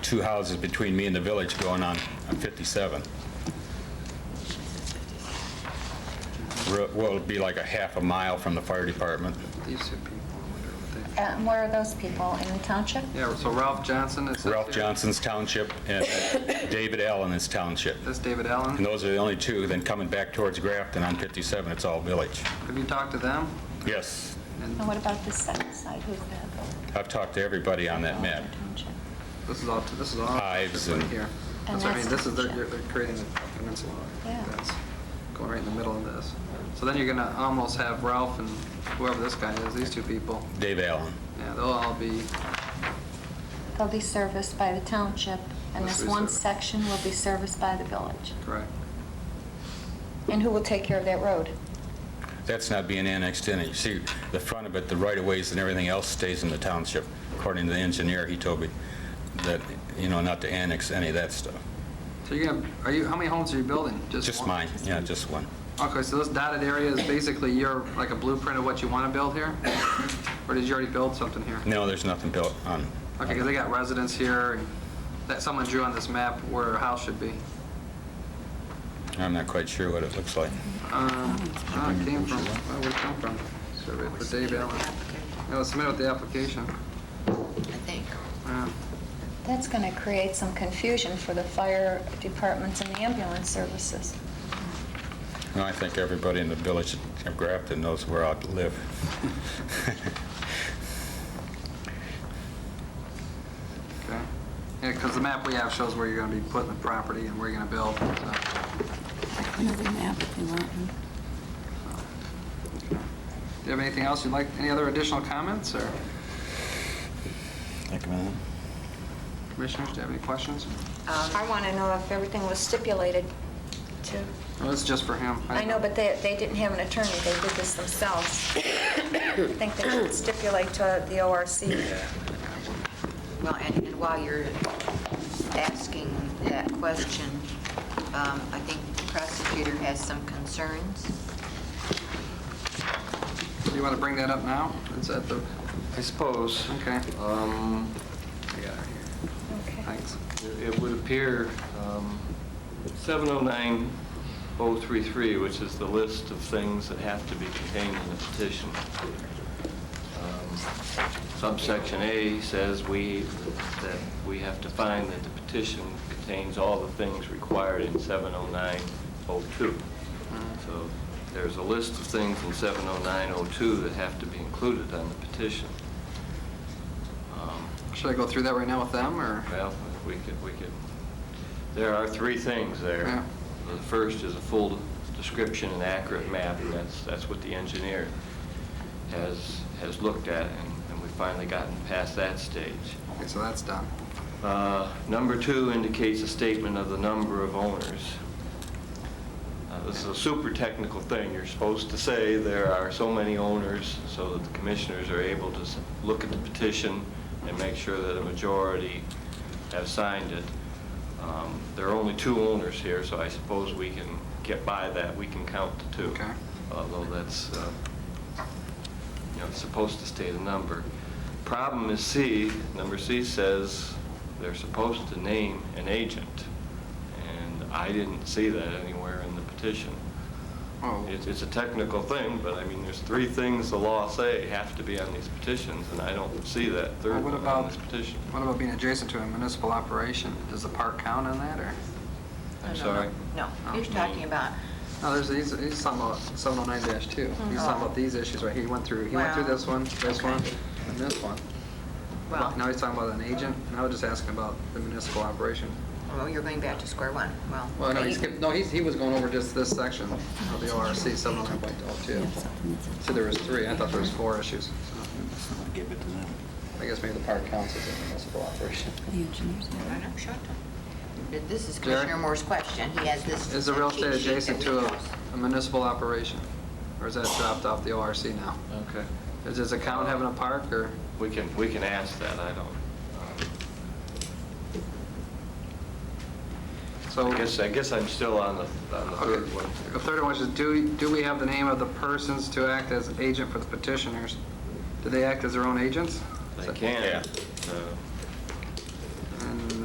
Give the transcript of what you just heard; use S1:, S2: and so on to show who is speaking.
S1: two houses between me and the village going on on 57. Real- Well, it'd be like a half a mile from the fire department.
S2: These are people, I wonder what
S3: And where are Uh, those people, in the township?
S2: they, yeah, so Ralph Johnson is.
S1: Ralph Johnson's township and David Allen's township.
S2: That's David
S1: And
S2: Allen.
S1: those are the only two. Then coming back towards Grafton on 57, it's all village.
S2: Have you talked to them?
S1: Yes,
S3: And what about this second side, who's that?
S1: I've talked to everybody on that map.
S3: Township.
S2: This is all, this is all.
S1: Hives
S2: right
S1: and-
S2: Here.
S3: And
S2: That's what I mean,
S3: that's-
S2: this is, they're, they're creating the peninsula.
S3: Yeah.
S2: That's Going right in the middle of this. So then you're gonna almost have Ralph and whoever this guy is, these two people,
S1: Dave Allen.
S2: yeah, they'll all be,
S3: They'll be serviced by the township, and
S2: Yes,
S3: this
S2: we
S3: one
S2: serve.
S3: section will be serviced by the village.
S2: correct.
S3: And who will take care of that road?
S1: That's not being annexed in. You see, the front of it, the right-of-ways and everything else stays in the township. According to the engineer, he told me that, you know, not to annex any of that stuff.
S2: So you're gonna, are you, how many homes are you building?
S1: Just
S2: one?
S1: mine, yeah, just one.
S2: Okay, so this dotted area is basically your, like a blueprint of what you wanna build here? Or did you already build something here?
S1: No, there's nothing built on,
S2: Okay, because they got residents here, and that someone drew on this map where a house should be.
S1: I'm not quite sure what it looks like.
S2: Um, oh, it came from, where would it come from? Survey for Dave Allen. It was submitted with the application.
S4: I think.
S2: Yeah.
S3: That's going to create some confusion for the fire departments and the ambulance services.
S1: No, I think everybody in the village of Grafton knows where I live.
S2: Okay. Yeah, because the map we have shows where you're gonna be putting the property and where you're gonna build, so.
S4: Another map if you want.
S2: Do you have anything else you'd like, any other additional comments, or
S1: Think about it.
S2: commissioners, do you have any questions?
S3: Um, I want to know if everything was stipulated to...
S2: Well, this is just for him.
S3: I know, but they, they didn't have an attorney, they did this themselves. I think they should stipulate to the ORC.
S4: Well, and and while you're asking that question, um, I think the prosecutor has some concerns.
S2: Do you wanna bring that up now? It's at the,
S5: I suppose.
S2: okay,
S5: Um, I got it here.
S3: Okay.
S2: thanks.
S5: It would appear um, 709-033, which is the list of things that have to be contained in the petition. Um, Subsection A says we, that we have to find that the petition contains all the things required in 709-02. So there's a list of things in 709-02 that have to be included on the petition. Um,
S2: Should I go through that right now with them, or?
S5: well, if we could, we could, there are three things
S2: Yeah.
S5: there. The first is a full description and accurate map, and that's, that's what the engineer has, has looked at, and and we've finally gotten past that stage.
S2: Okay, so that's done.
S5: Uh, Number two indicates a statement of the number of owners. Uh, This is a super technical thing. You're supposed to say there are so many owners so that the commissioners are able to s- look at the petition and make sure that a majority have signed it. Um, There are only two owners here, so I suppose we can get by that. We can count the two.
S2: Okay.
S5: Although that's, uh, you know, it's supposed to state a number. Problem is C, number C says they're supposed to name an agent, and I didn't see that anywhere in the petition.
S2: Oh,
S5: It's, it's a technical thing, but I mean, there's three things the law say have to be on these petitions, and I don't see that
S2: Well,
S5: third
S2: what
S5: one
S2: about-
S5: on this petition.
S2: what about being adjacent to a municipal operation? Does the park count on that, or?
S5: I'm
S4: No, no, no.
S5: sorry.
S4: No, you're talking about,
S2: No, there's, he's, he's talking about 709-2. He's talking about these issues right here. He went through, he went through
S4: Well,
S2: this one, this
S4: Mm-hmm. okay.
S2: one, and this one. Now
S4: well,
S2: he's talking about an agent, and I was just asking about the municipal operation.
S4: well, you're going back to square one, well.
S2: Well, no,
S4: okay,
S2: he
S4: you
S2: skipped,
S4: can-
S2: no, he's, he was going over just this section of the ORC 709.02. So oh there was three, I thought there was four issues. so. I guess maybe the park counts as a municipal operation.
S4: I don't- shut up. This is
S2: Jerry?
S4: Commissioner Moore's question, he has this.
S2: Is the real estate
S4: cheat sheet
S2: adjacent
S4: that
S2: to
S4: we
S2: a
S4: chose.
S2: a municipal operation? Or is that dropped off the ORC now?
S5: Okay.
S2: Does this account having a park, or?
S5: We can, we can ask that, I don't, um,
S2: so?
S5: I guess, I guess I'm still on the, on the
S2: Okay,
S5: third one.
S2: the third one is, do, do we have the name of the persons to act as agent for the petitioners? Do they act as their own agents?
S5: They can.
S1: Yeah.
S5: uh,